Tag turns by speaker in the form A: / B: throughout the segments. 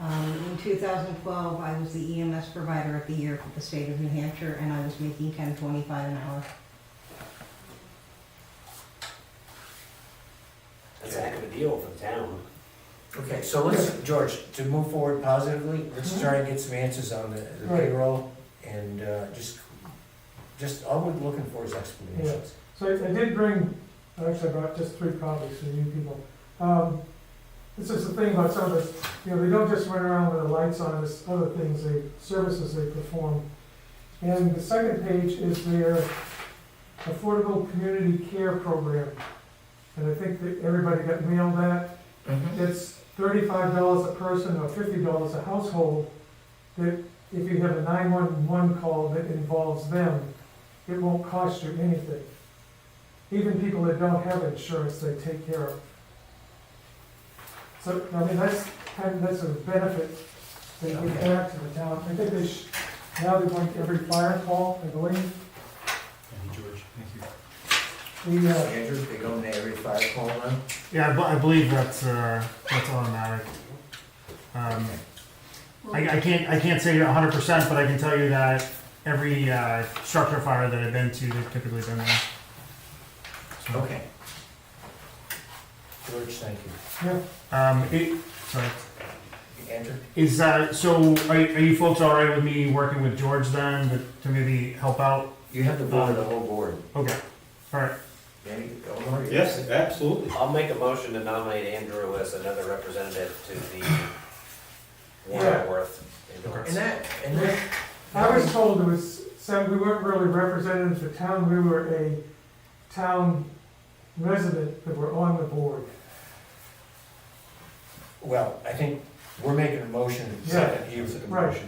A: Um, 2012, I was the EMS provider of the year for the state of New Hampshire, and I was making 10.25 an hour.
B: That's a heck of a deal for the town.
C: Okay, so let's, George, to move forward positively, let's try and get some answers on the the
D: Right.
C: payroll and uh, just, just, all we're looking for is explanations.
D: So I I did bring, actually I brought just three copies for you people. Um, This is the thing about some of this, you know, they don't just run around with the lights on, there's other things, they, services they perform. And the second page is their Affordable Community Care Program. And I think that everybody got mailed that.
C: Mm-hmm.
D: it's thirty-five dollars a person or fifty dollars a household, that if you have a nine-one-one call that involves them, it won't cost you anything. Even people that don't have insurance, they take care of. So, I mean, that's, kind of- that's a benefit that you give back to the town. I think they should, now they want every fire call, I believe,
E: Thank you, George. Thank you.
D: the, uh,
C: Andrew, they go in there every five call now?
E: Mm-hmm.
F: Yeah, I, bu- I believe that's uh, that's automatic. Um, I, I can't I can't say 100, percent but I can tell you that every uh, structure fire that I've been to, they've typically been there. So,
C: Okay. George, thank you.
D: yeah,
F: Um, it, sorry.
C: Andrew?
F: Is that so? Are, are you folks all right with me working with George then to, to maybe help out?
C: You have the board, the whole board.
F: Okay. All right.
C: Danny, Eleanor, you-
E: Yes, absolutely.
B: I'll make a motion to nominate Andrew as another representative to the Warren Worth
C: And
B: endorse.
C: that, and that.
D: I was told it was, said we weren't really representatives of the town, we were a town resident that were on the board.
C: Well, I think we're making a motion.
D: Yeah.
C: Second, you-
D: Right.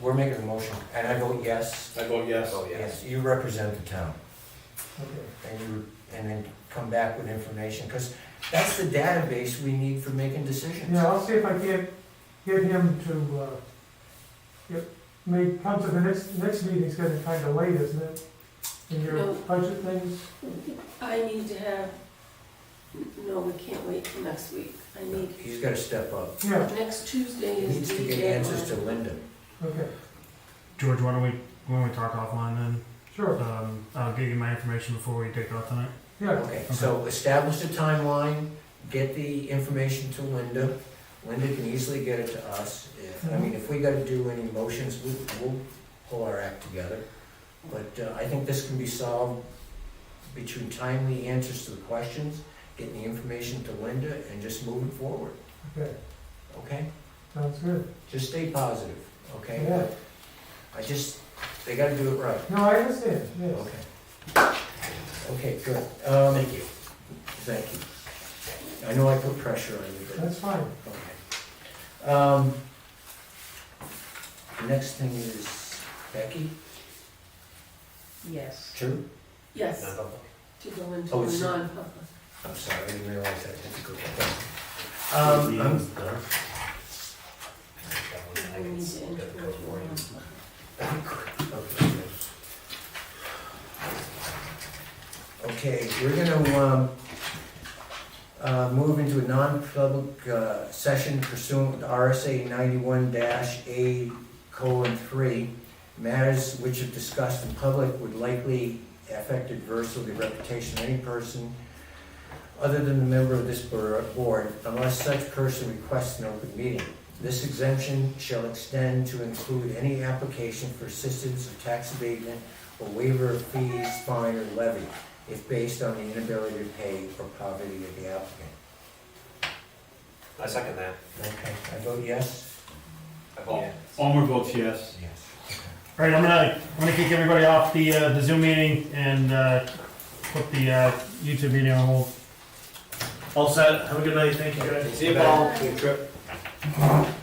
C: We're making a motion, and I vote yes.
E: I vote yes.
B: Oh, yes.
C: You represent the town.
D: Okay.
C: and you, and then come back with information, because that's the database we need for making decisions.
D: Yeah, I'll see if I can't get him to, uh, get, may come to the next, next meeting's gonna be kinda late, isn't it? In your
G: No.
D: budget things,
G: I need to have, no, we can't wait till next week. I need,
C: He's gotta step up.
D: yeah,
G: next Tuesday
C: He
G: is
C: needs
G: the
C: to get answers to
G: deadline.
C: Linda.
D: okay,
F: George, why don't we why don't we talk offline then?
D: sure,
F: Um, I'll give you my information before we take off tonight.
D: yeah,
C: Okay, so establish a timeline, get the information to Linda. Linda can easily get it to us. If- I mean, if we gotta do any motions, we'll, we'll pull our act together. But uh, I think this can be solved between timely answers to the questions, getting the information to Linda, and just moving forward,
D: okay,
C: okay?
D: sounds good,
C: Just stay positive, okay?
D: yeah.
C: I just, they gotta do it right.
D: No, I understand, yes.
C: Okay. Okay, good. Um, thank you. Thank you. I know I put pressure on you, but,
D: That's fine,
C: okay. Um, the next thing is Becky,
A: Yes.
C: true?
G: Yes,
B: Non-public.
G: to go into
C: Oh, it's-
G: a non-public.
C: Oh, I'm sorry, I didn't realize that. That's a good one. Um, um,
B: That one I
G: We
B: can
G: need
B: s-
G: to enter
B: go-
G: into
B: go
G: a
B: for it.
G: non-public.
C: okay, good. Okay, we're gonna, um, uh, move into a non-public, uh, session pursuant to RSA ninety-one dash A colon three. Matters which if discussed in public would likely affect adversely the reputation of any person other than the member of this bor- board unless such person requests an open meeting. This exemption shall extend to include any application for assistance or tax abatement or waiver of fees, fine, or levy if based on the inability to pay or poverty of the applicant.
B: I second that.
C: Okay, I vote yes?
B: I vote.
E: Almer votes yes.
C: Yes.
F: All right, I'm gonna I'm gonna kick everybody off the uh, the Zoom meeting and uh, put the uh, YouTube video on hold. All set. Have a good night. Thank you guys.
B: See you, Paul.
G: Good
B: trip.